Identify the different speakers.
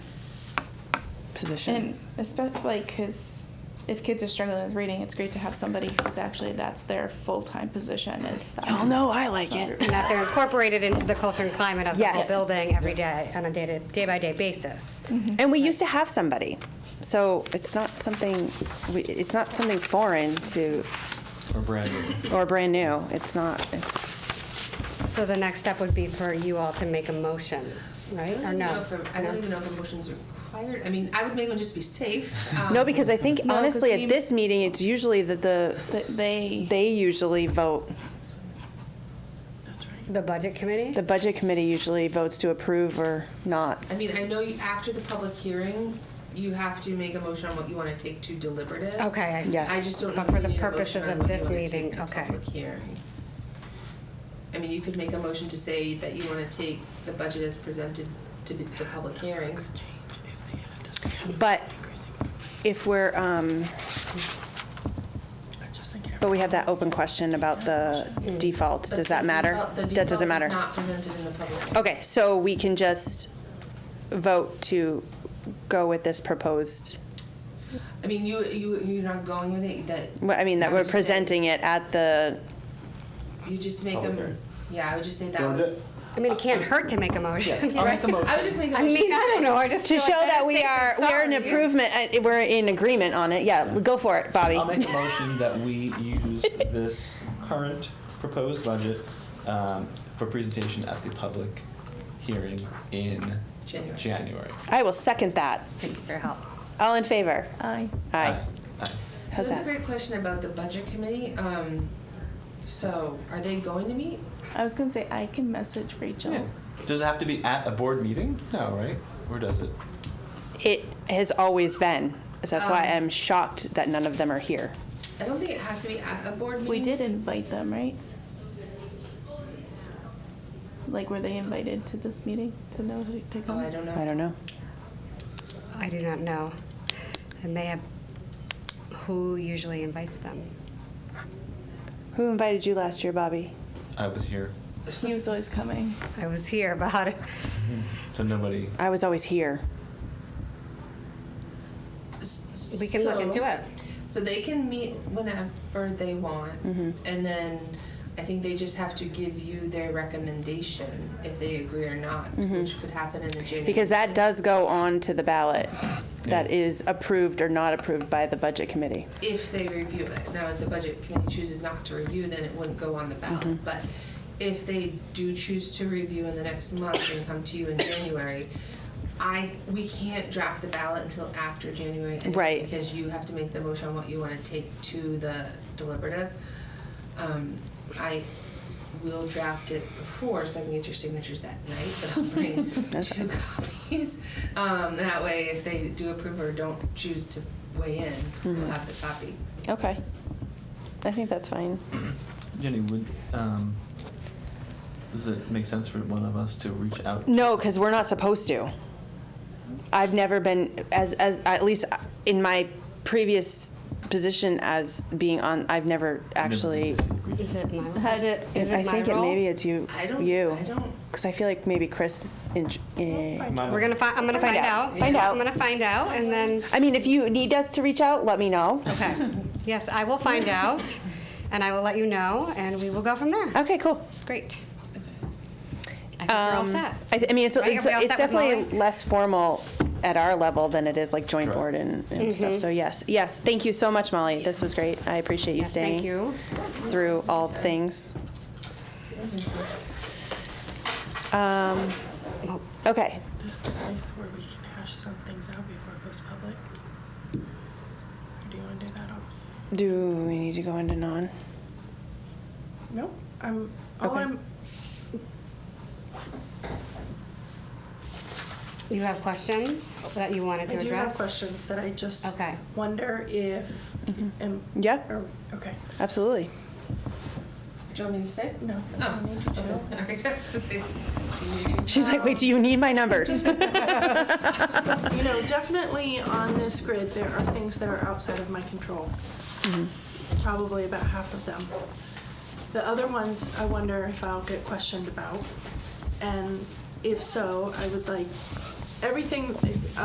Speaker 1: position.
Speaker 2: And especially like, because if kids are struggling with reading, it's great to have somebody who's actually that's their full time position. Is that
Speaker 1: Y'all know Oh, I like it.
Speaker 3: and that they're incorporated into the culture and climate of the
Speaker 4: Yes.
Speaker 3: whole building every day on a day to day by day basis.
Speaker 5: Mm-hmm.
Speaker 4: And we used to have somebody, so it's not something, we- it's not something foreign to,
Speaker 6: Or brand new.
Speaker 4: or brand new. It's not, it's,
Speaker 3: So the next step would be for you all to make a motion, right? Or
Speaker 5: I don't even
Speaker 3: no?
Speaker 5: know if a- I
Speaker 3: No.
Speaker 5: don't even know if a motion's required. I mean, I would make one just to be safe.
Speaker 4: no,
Speaker 5: um,
Speaker 4: because I think
Speaker 2: No, 'cause
Speaker 4: honestly,
Speaker 2: we-
Speaker 4: at this meeting, it's usually that the,
Speaker 2: th- they,
Speaker 4: they usually vote,
Speaker 3: The budget committee?
Speaker 4: the budget committee usually votes to approve or not.
Speaker 5: I mean, I know you, after the public hearing, you have to make a motion on what you want to take to deliberative.
Speaker 3: Okay, I see.
Speaker 4: Yes.
Speaker 5: I just don't know
Speaker 3: But
Speaker 5: if
Speaker 3: for
Speaker 5: you
Speaker 3: the
Speaker 5: need a
Speaker 3: purposes
Speaker 5: motion on
Speaker 3: of
Speaker 5: what you
Speaker 3: this
Speaker 5: wanna
Speaker 3: meeting,
Speaker 5: take to
Speaker 3: okay.
Speaker 5: public hearing. I mean, you could make a motion to say that you want to take the budget as presented to be- the public hearing.
Speaker 4: But if we're, um, but we have that open question about the default,
Speaker 5: But
Speaker 4: does that
Speaker 5: the
Speaker 4: matter?
Speaker 5: default- the
Speaker 4: That doesn't
Speaker 5: default
Speaker 4: matter.
Speaker 5: is not presented in the public.
Speaker 4: Okay, so we can just vote to go with this proposed,
Speaker 5: I mean, you, you, you're not going with it, that.
Speaker 4: well, I mean, that
Speaker 5: I would
Speaker 4: we're
Speaker 5: just say-
Speaker 4: presenting it at the,
Speaker 5: You just make
Speaker 6: Public hearing.
Speaker 5: them, yeah, I would just say that.
Speaker 6: So
Speaker 5: would-
Speaker 6: ju-
Speaker 3: I mean, it can't hurt to make a motion.
Speaker 6: I'll make a
Speaker 5: I
Speaker 6: motion.
Speaker 5: would just make a
Speaker 3: I
Speaker 5: motion.
Speaker 3: mean,
Speaker 5: to
Speaker 3: I don't
Speaker 5: say-
Speaker 3: know, I just
Speaker 4: to
Speaker 3: feel
Speaker 4: show
Speaker 3: like
Speaker 4: that
Speaker 3: better
Speaker 4: we
Speaker 3: safe than
Speaker 4: are, we're in
Speaker 3: sorry.
Speaker 4: improvement, uh, we're in agreement on it, yeah, go for it, Bobby.
Speaker 6: I'll make a motion that we use this current proposed budget um, for presentation at the public hearing in
Speaker 5: January.
Speaker 6: January.
Speaker 4: I will second that.
Speaker 3: Thank you for your help.
Speaker 4: All in favor?
Speaker 2: I,
Speaker 4: Aye.
Speaker 6: Aye.
Speaker 5: So
Speaker 4: How's
Speaker 5: that's a
Speaker 4: that?
Speaker 5: great question about the budget committee. Um, so are they going to meet?
Speaker 2: I was gonna say I can message Rachel.
Speaker 6: Yeah. Does it have to be at a board meeting? No, right? Or does it?
Speaker 4: It has always been, so that's why
Speaker 5: Um,
Speaker 4: I'm shocked that none of them are here.
Speaker 5: I don't think it has to be at a board meeting.
Speaker 2: We did invite them, right? Like, were they invited to this meeting to know to, to
Speaker 5: Oh,
Speaker 2: come?
Speaker 5: I don't know.
Speaker 4: I don't know.
Speaker 3: I do not know. And they have, who usually invites them?
Speaker 4: Who invited you last year, Bobby?
Speaker 6: I was here,
Speaker 2: He was always coming.
Speaker 3: I was here, but how do,
Speaker 6: so nobody.
Speaker 4: I was always here.
Speaker 3: we can look
Speaker 5: So-
Speaker 3: into it.
Speaker 5: So they can meet whenever they want,
Speaker 3: Mm-hmm.
Speaker 5: and then I think they just have to give you their recommendation if they agree or not,
Speaker 3: Mm-hmm.
Speaker 5: which could happen in the January.
Speaker 4: Because that does go on to the ballot that
Speaker 6: Yeah.
Speaker 4: is approved or not approved by the budget committee.
Speaker 5: if they review it. Now, if the budget committee chooses not to review, then it wouldn't go on the ballot. But if they do choose to review in the next month and come to you in January, I, we can't draft the ballot until after January. anyway,
Speaker 4: Right.
Speaker 5: Because you have to make the motion on what you want to take to the deliberative. Um, I will draft it before, so I can get your signatures that night, but I'll bring two copies. Um, that way, if they do approve or don't choose to weigh in, we'll have the copy.
Speaker 4: Okay. I think that's fine.
Speaker 6: Jenny, would um, does it make sense for one of us to reach out?
Speaker 4: No, because we're not supposed to. I've never been, as, as, at least in my previous position as being on, I've never actually.
Speaker 3: Is it my,
Speaker 2: Had it-
Speaker 3: is
Speaker 4: I
Speaker 3: it my
Speaker 4: think it maybe
Speaker 3: role?
Speaker 4: it's you,
Speaker 5: I don't.
Speaker 4: you.
Speaker 5: I don't. oh,
Speaker 4: Because I feel like maybe Chris, in- eh.
Speaker 3: We're gonna find, I'm gonna find out.
Speaker 4: Find out.
Speaker 3: I'm gonna find out and then,
Speaker 4: I mean, if you need us to reach out, let me know.
Speaker 3: okay. Yes, I will find out and I will let you know and we will go from there.
Speaker 4: Okay, cool.
Speaker 3: Great. I think we're all
Speaker 4: Um,
Speaker 3: set.
Speaker 4: I, th- I mean, it's,
Speaker 3: Right?
Speaker 4: it's,
Speaker 3: Are we all
Speaker 4: it's
Speaker 3: set with
Speaker 4: definitely
Speaker 3: Molly?
Speaker 4: less formal at our level than it is like joint
Speaker 6: Correct.
Speaker 4: board and, and
Speaker 3: Mm-hmm.
Speaker 4: stuff. So yes, yes. Thank you so much, Molly. This was great. I appreciate you
Speaker 3: Yes,
Speaker 4: staying
Speaker 3: Thank you.
Speaker 4: through all things. Um,
Speaker 3: Oh,
Speaker 4: okay.
Speaker 7: This is nice where we can hash some things out before it goes public. Or do you want to do that off?
Speaker 4: Do we need to go into non?
Speaker 7: No, I'm, all
Speaker 4: Okay.
Speaker 7: I'm,
Speaker 3: You have questions that you
Speaker 7: I
Speaker 3: wanted to
Speaker 7: do have
Speaker 3: address?
Speaker 7: questions that I just
Speaker 3: Okay.
Speaker 7: wonder if, am-
Speaker 4: Yeah.
Speaker 7: or- okay,
Speaker 4: Absolutely.
Speaker 5: Do you want me to say?
Speaker 7: no.
Speaker 5: Oh, okay. All right. I was gonna say, do you need to-
Speaker 4: She's like, wait, do you need my numbers?
Speaker 7: You know, definitely on this grid, there are things that are outside of my control.
Speaker 4: Mm-hmm.
Speaker 7: Probably about half of them. The other ones, I wonder if I'll get questioned about. And if so, I would like, everything,